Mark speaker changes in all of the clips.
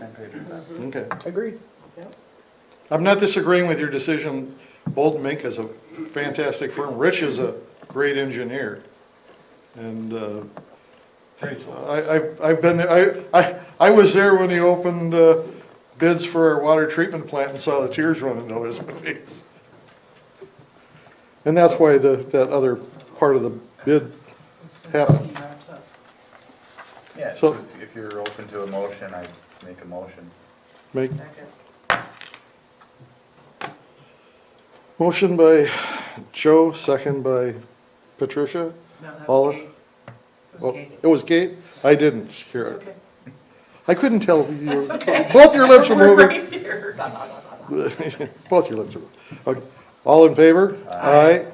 Speaker 1: page with that.
Speaker 2: Okay.
Speaker 3: Agreed.
Speaker 2: I'm not disagreeing with your decision. Bolton Mink is a fantastic firm. Rich is a great engineer. And uh,
Speaker 1: Great.
Speaker 2: I, I've- I've been, I, I, I was there when he opened uh, bids for our water treatment plant and saw the tears running down his face. And that's why the, that other part of the bid happened.
Speaker 1: Yeah,
Speaker 2: So-
Speaker 1: so if if you're open to a motion, I make a motion.
Speaker 2: Make,
Speaker 4: Second.
Speaker 2: motion by Joe, second by Patricia.
Speaker 4: No, that
Speaker 2: All-
Speaker 4: was Kate. It
Speaker 2: Oh,
Speaker 4: was Kate.
Speaker 2: It was Kate? I didn't hear
Speaker 4: It's
Speaker 2: it.
Speaker 4: okay.
Speaker 2: I couldn't tell. you-
Speaker 4: That's okay.
Speaker 2: Both your lips are
Speaker 4: We're
Speaker 2: moving.
Speaker 4: right here. Blah, blah, blah, blah, blah.
Speaker 2: Both your lips are. okay. All in favor? Aye.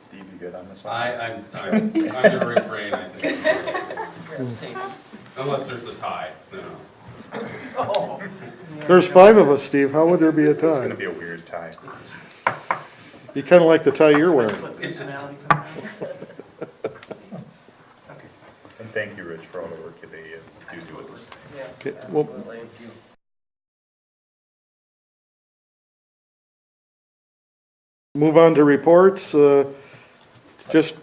Speaker 1: Steve, you good on this one?
Speaker 5: I, I'm, I'm I'm gonna refrain, I think,
Speaker 4: You're abstaining.
Speaker 5: unless there's a tie, no.
Speaker 4: Oh.
Speaker 2: There's five of us, Steve. How would there be a
Speaker 1: It's gonna
Speaker 2: tie?
Speaker 1: be a weird tie.
Speaker 2: You kind of like the tie you're
Speaker 4: That's
Speaker 2: wearing.
Speaker 4: what personality comes out. Okay.
Speaker 1: And thank you, Rich, for all the work you do you do with this.
Speaker 4: Yes,
Speaker 2: Okay, well-
Speaker 4: absolutely.
Speaker 2: Move on to reports, uh, just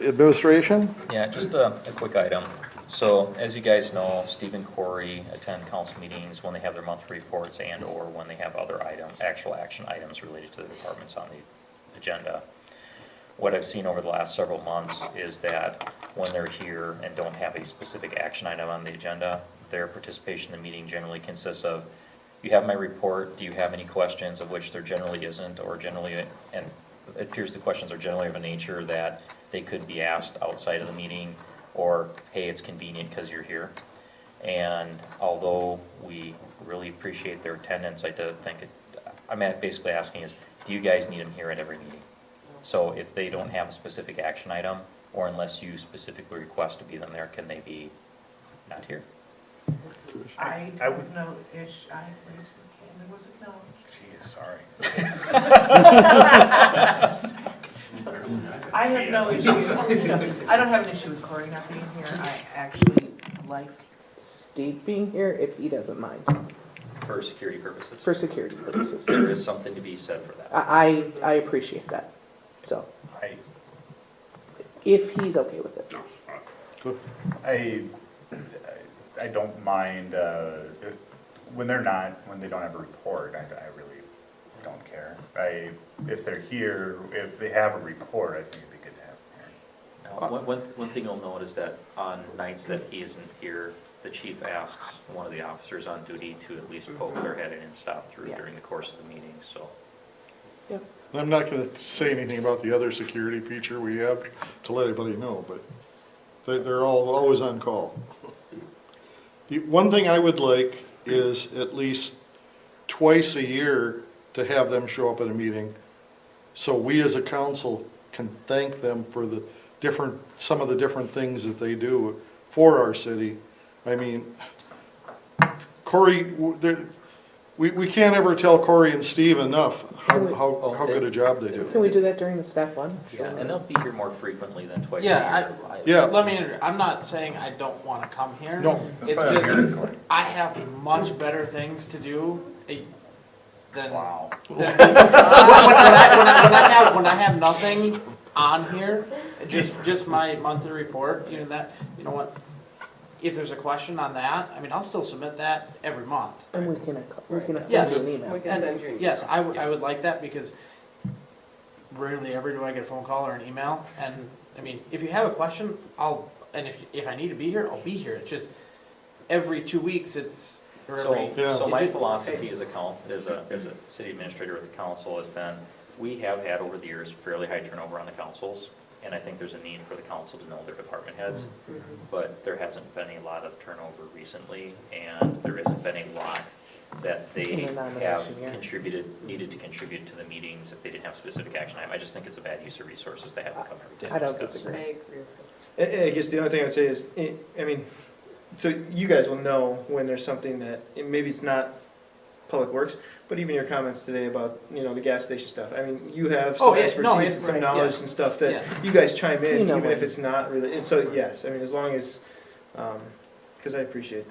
Speaker 2: administration.
Speaker 6: Yeah, just a, a quick item. So as you guys know, Steve and Corey attend council meetings when they have their monthly reports and/or when they have other item, actual action items related to the departments on the agenda. What I've seen over the last several months is that when they're here and don't have a specific action item on the agenda, their participation in the meeting generally consists of, you have my report, do you have any questions, of which there generally isn't, or generally, and it appears the questions are generally of a nature that they could be asked outside of the meeting, or, hey, it's convenient because you're here. And although we really appreciate their attendance, I do think, it- I'm at- basically asking is, do you guys need them here at every meeting? So if they don't have a specific action item, or unless you specifically request to be them there, can they be not here?
Speaker 4: I
Speaker 1: I
Speaker 4: don't
Speaker 1: would-
Speaker 4: know, ish, I raised the hand, it was acknowledged.
Speaker 1: Geez, sorry.
Speaker 4: I have no issue, I don't have an issue with Corey not being here, I actually like
Speaker 3: Steve being here, if he doesn't mind,
Speaker 6: For security purposes.
Speaker 3: for security purposes.
Speaker 6: There is something to be said for
Speaker 4: Uh,
Speaker 6: that.
Speaker 3: I, I I appreciate that. So,
Speaker 1: I,
Speaker 3: if he's okay with it.
Speaker 1: I, I don't mind, uh, if- when they're not, when they don't have a report, I, I really don't care. I, if they're here, if they have a report, I think it'd be good to have them here.
Speaker 6: Now, One, one, one thing you'll note is that on nights that he isn't here, the chief asks one of the officers on duty to at least poke their head in and stop through
Speaker 3: Yeah.
Speaker 6: during the course of the meeting, so.
Speaker 3: Yep.
Speaker 2: I'm not going to say anything about the other security feature we have to let anybody know, but they- they're all, always on call. The One thing I would like is at least twice a year to have them show up at a meeting so we as a council can thank them for the different, some of the different things that they do for our city. I mean, Corey, w- there- we, we can't ever tell Corey and Steve enough how, how how good a job they do.
Speaker 3: Can we do that during the staff lunch?
Speaker 6: Yeah, and they'll be here more frequently than twice a year.
Speaker 7: Yeah, I, I-
Speaker 2: Yeah.
Speaker 7: let me, inter- I'm not saying I don't wanna come here.
Speaker 2: No.
Speaker 1: That's
Speaker 7: It's
Speaker 1: why I'm here,
Speaker 7: just,
Speaker 1: Cory.
Speaker 7: I have much better things to do eh, than.
Speaker 1: Wow.
Speaker 7: than- When when I, when I, when I have, when I have nothing on here, just, just my monthly report, you know, that, you know what? If there's a question on that, I mean, I'll still submit that every month.
Speaker 3: And we can, ac- we can send
Speaker 7: Yes.
Speaker 3: you an email.
Speaker 7: And, Yes, I would, I would like that because rarely ever do I get a phone call or an email. And, I mean, if you have a question, I'll, and if, if I need to be here, I'll be here. It's just every two weeks, it's, or
Speaker 6: So,
Speaker 7: every.
Speaker 2: Yeah.
Speaker 6: so my
Speaker 7: It ju-
Speaker 6: philosophy as a council, as a, as a city administrator with the council has been, we have had over the years fairly high turnover on the councils, and I think there's a need for the council to know their department heads,
Speaker 3: Mm-hmm.
Speaker 6: but there hasn't been a lot of turnover recently, and there hasn't been a lot that
Speaker 3: In
Speaker 6: they
Speaker 3: the
Speaker 6: have
Speaker 3: nomination, yeah.
Speaker 6: contributed, needed to contribute to the meetings if they didn't have specific action item. I just think it's a bad use of resources to have them come every time.
Speaker 3: I don't
Speaker 6: to discuss.
Speaker 3: disagree.
Speaker 8: I- I guess the only thing I would say is, I I mean, so you guys will know when there's something that, and maybe it's not Public Works, but even your comments today about, you know, the gas station stuff. I mean, you have
Speaker 7: Oh,
Speaker 8: some
Speaker 7: yeah, no,
Speaker 8: expertise
Speaker 7: it-
Speaker 8: and some
Speaker 7: right,
Speaker 8: knowledge
Speaker 7: yeah.
Speaker 8: and stuff
Speaker 7: Yeah.
Speaker 8: that you guys chime
Speaker 3: You
Speaker 8: in,
Speaker 3: know
Speaker 8: even
Speaker 3: when.
Speaker 8: if it's not really, and so, yes, um, I mean, as long as, because I appreciate that.